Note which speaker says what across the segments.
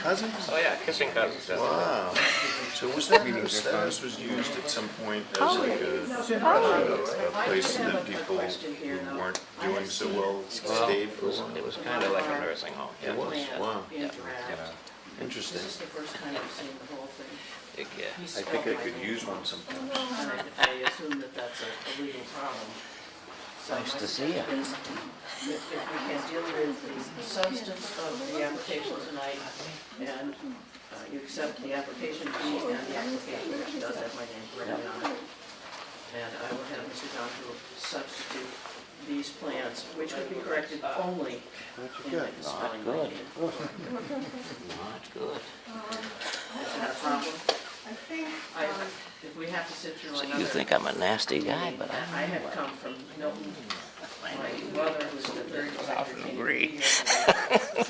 Speaker 1: Cousins?
Speaker 2: Oh, yeah, kissing cousins. yeah.
Speaker 1: Wow. So was that, was that house was used at some point as like a, a a place that people who weren't doing so well
Speaker 2: Well,
Speaker 1: stayed
Speaker 2: it
Speaker 1: for a
Speaker 2: was,
Speaker 1: while?
Speaker 2: it was kind of like a nursing home.
Speaker 1: It was, wow, interesting.
Speaker 3: This is the first time I've seen the whole thing,
Speaker 2: It- yeah.
Speaker 1: I think I could use one sometime.
Speaker 3: and I- I assume that that's a a legal problem. So
Speaker 4: Nice
Speaker 3: my
Speaker 4: to see ya.
Speaker 3: suggestion is If if we can deal with the substance of the application tonight, and uh, you accept the application fee and the application, which does have my name written on it, and I will have Mr. Donahue substitute these plans, which would be corrected only in the spelling.
Speaker 4: Good.
Speaker 3: bee.
Speaker 4: Not good.
Speaker 3: Is that a problem?
Speaker 5: I think,
Speaker 3: I,
Speaker 5: um,
Speaker 3: if we have to sit through
Speaker 4: So
Speaker 3: another.
Speaker 4: you think I'm a nasty guy, but I'm
Speaker 3: I have come from Milton. My mother was the third
Speaker 4: Often
Speaker 3: director.
Speaker 4: agree.
Speaker 5: sorry.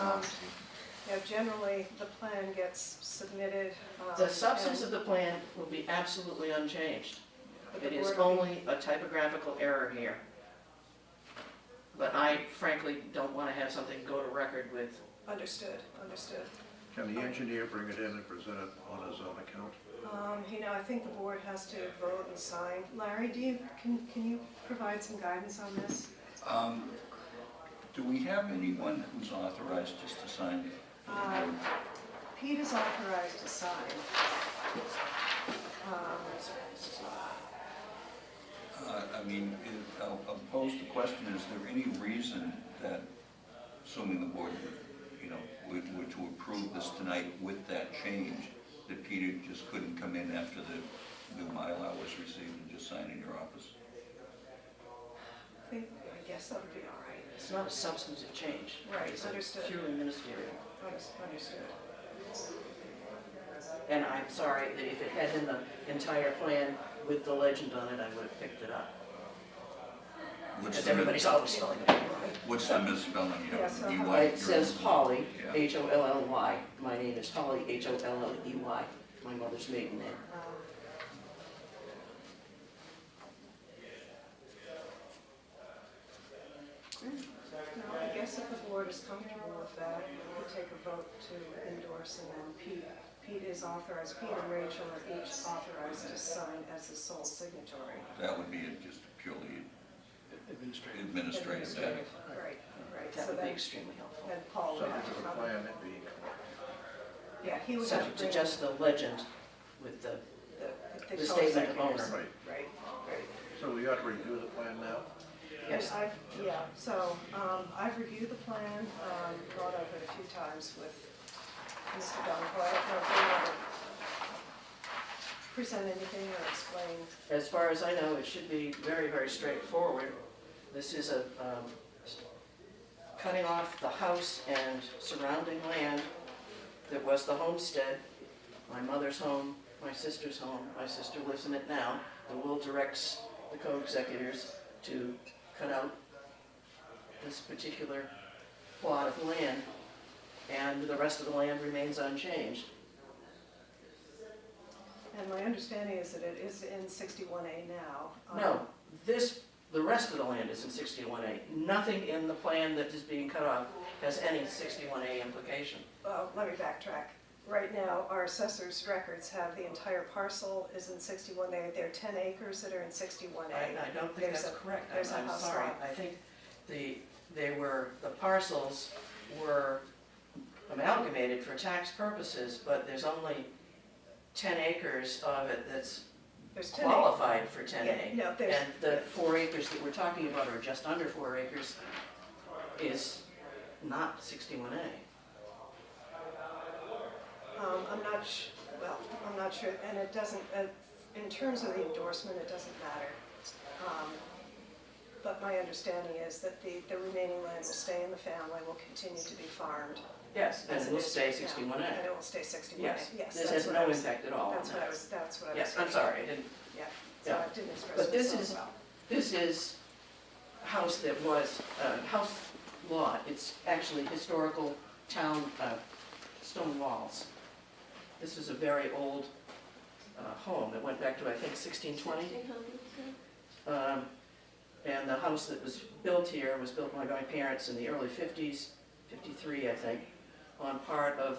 Speaker 5: Um, Yeah, generally, the plan gets submitted. um,
Speaker 3: The substance of the
Speaker 5: and-
Speaker 3: plan will be absolutely unchanged.
Speaker 5: but the
Speaker 3: It is
Speaker 5: word-
Speaker 3: only a typographical error here. But I frankly don't want to have something go to record with,
Speaker 5: Understood, understood.
Speaker 6: Can the engineer bring it in and present it on his own account?
Speaker 5: Um, You know, I think the board has to vote and sign. Larry, do you, can, can you provide some guidance on this?
Speaker 7: Um, Do we have anyone who's authorized just to sign it?
Speaker 5: Um, Pete is authorized to sign. Um,
Speaker 7: Uh, I mean, it- I'll I'll pose the question, is there any reason that, assuming the board, you know, were were to approve this tonight with that change, that Peter just couldn't come in after the new Mylar was received and just sign in your office?
Speaker 5: I think- I guess that would be all right.
Speaker 3: it's not a substantive change.
Speaker 5: Right,
Speaker 3: It's
Speaker 5: understood.
Speaker 3: purely ministerial.
Speaker 5: Unders- Understood.
Speaker 3: And I'm sorry that if it had been the entire plan with the legend on it, I would have picked it up.
Speaker 7: What's
Speaker 3: Because
Speaker 7: the-
Speaker 3: everybody's always spelling it.
Speaker 7: What's the misspelling, you know,
Speaker 5: Yes, uh-huh.
Speaker 7: D-Y?
Speaker 3: It says Polly,
Speaker 7: Yeah.
Speaker 3: H-O-L-L-Y. My name is Polly, H-O-L-L-E-Y, E my mother's maiden name.
Speaker 5: No, I guess if the board is comfortable with that, we could take a vote to endorse and then Pete, Pete is authorized, Pete and Rachel are each authorized to sign as the sole signatory.
Speaker 7: That would be a- just purely administrative. matter.
Speaker 5: Right, right,
Speaker 3: That
Speaker 5: so
Speaker 3: would be
Speaker 5: then,
Speaker 3: extremely helpful.
Speaker 5: then Paul would
Speaker 6: Subject
Speaker 5: have
Speaker 6: to
Speaker 5: to
Speaker 6: the
Speaker 5: come.
Speaker 6: plan it being
Speaker 5: Yeah, he would have
Speaker 3: Subject
Speaker 5: to
Speaker 3: to
Speaker 5: bring
Speaker 3: just the legend with the,
Speaker 5: the-
Speaker 3: the
Speaker 5: the
Speaker 3: statement of
Speaker 5: co-signators.
Speaker 3: owner.
Speaker 6: Right,
Speaker 5: Right, right.
Speaker 6: so we ought to review the plan now?
Speaker 5: And
Speaker 3: yes,
Speaker 5: I've, yeah, so, um, I've reviewed the plan, um, brought up it a few times with Mr. Donahue. I don't know if you want to present anything or explain.
Speaker 3: as far as I know, it should be very, very straightforward. This is a, um, cutting off the house and surrounding land that was the homestead, my mother's home, my sister's home, my sister lives in it now. The will directs the co-executors to cut out this particular plot of land, and the rest of the land remains unchanged.
Speaker 5: And my understanding is that it is in sixty-one A now. um,
Speaker 3: No, this, the rest of the land is in sixty-one A. Nothing in the plan that is being cut off has any sixty-one A implication.
Speaker 5: Well, let me backtrack. Right now, our assessor's records have the entire parcel is in sixty-one A. There are ten acres that are in sixty-one
Speaker 3: I,
Speaker 5: A.
Speaker 3: I don't think
Speaker 5: There's
Speaker 3: that's
Speaker 5: a-
Speaker 3: correct. I'm,
Speaker 5: there's a
Speaker 3: I'm
Speaker 5: house
Speaker 3: sorry.
Speaker 5: lot.
Speaker 3: I think the, they were, the parcels were amalgamated for tax purposes, but there's only ten acres of it that's
Speaker 5: There's ten acres.
Speaker 3: qualified for ten
Speaker 5: Yeah,
Speaker 3: A.
Speaker 5: no, there's,
Speaker 3: And the four acres that we're talking about, or just under four acres, is not sixty-one A.
Speaker 5: um, I'm not sh, well, I'm not sure, and it doesn't, uh, in terms of the endorsement, it doesn't matter. Um, But my understanding is that the, the remaining land will stay in the family, will continue to be farmed.
Speaker 3: Yes,
Speaker 5: as
Speaker 3: and we'll
Speaker 5: it is
Speaker 3: stay
Speaker 5: right now.
Speaker 3: sixty-one A.
Speaker 5: And it will stay sixty-one A,
Speaker 3: Yes,
Speaker 5: yes.
Speaker 3: this
Speaker 5: that's
Speaker 3: has
Speaker 5: what I
Speaker 3: no
Speaker 5: was-
Speaker 3: impact at all on
Speaker 5: That's what I
Speaker 3: that.
Speaker 5: was, that's what I was.
Speaker 3: Yes, I'm
Speaker 5: thinking.
Speaker 3: sorry, I didn't,
Speaker 5: Yeah, so
Speaker 3: Yeah.
Speaker 5: I didn't express
Speaker 3: But this
Speaker 5: myself
Speaker 3: is-
Speaker 5: well.
Speaker 3: this is house that was, uh, house lot, it's actually historical town, uh, stone walls. This is a very old, uh, home that went back to, I think, sixteen twenty. Um, and the house that was built here was built by my parents in the early fifties, fifty-three, I think. on part of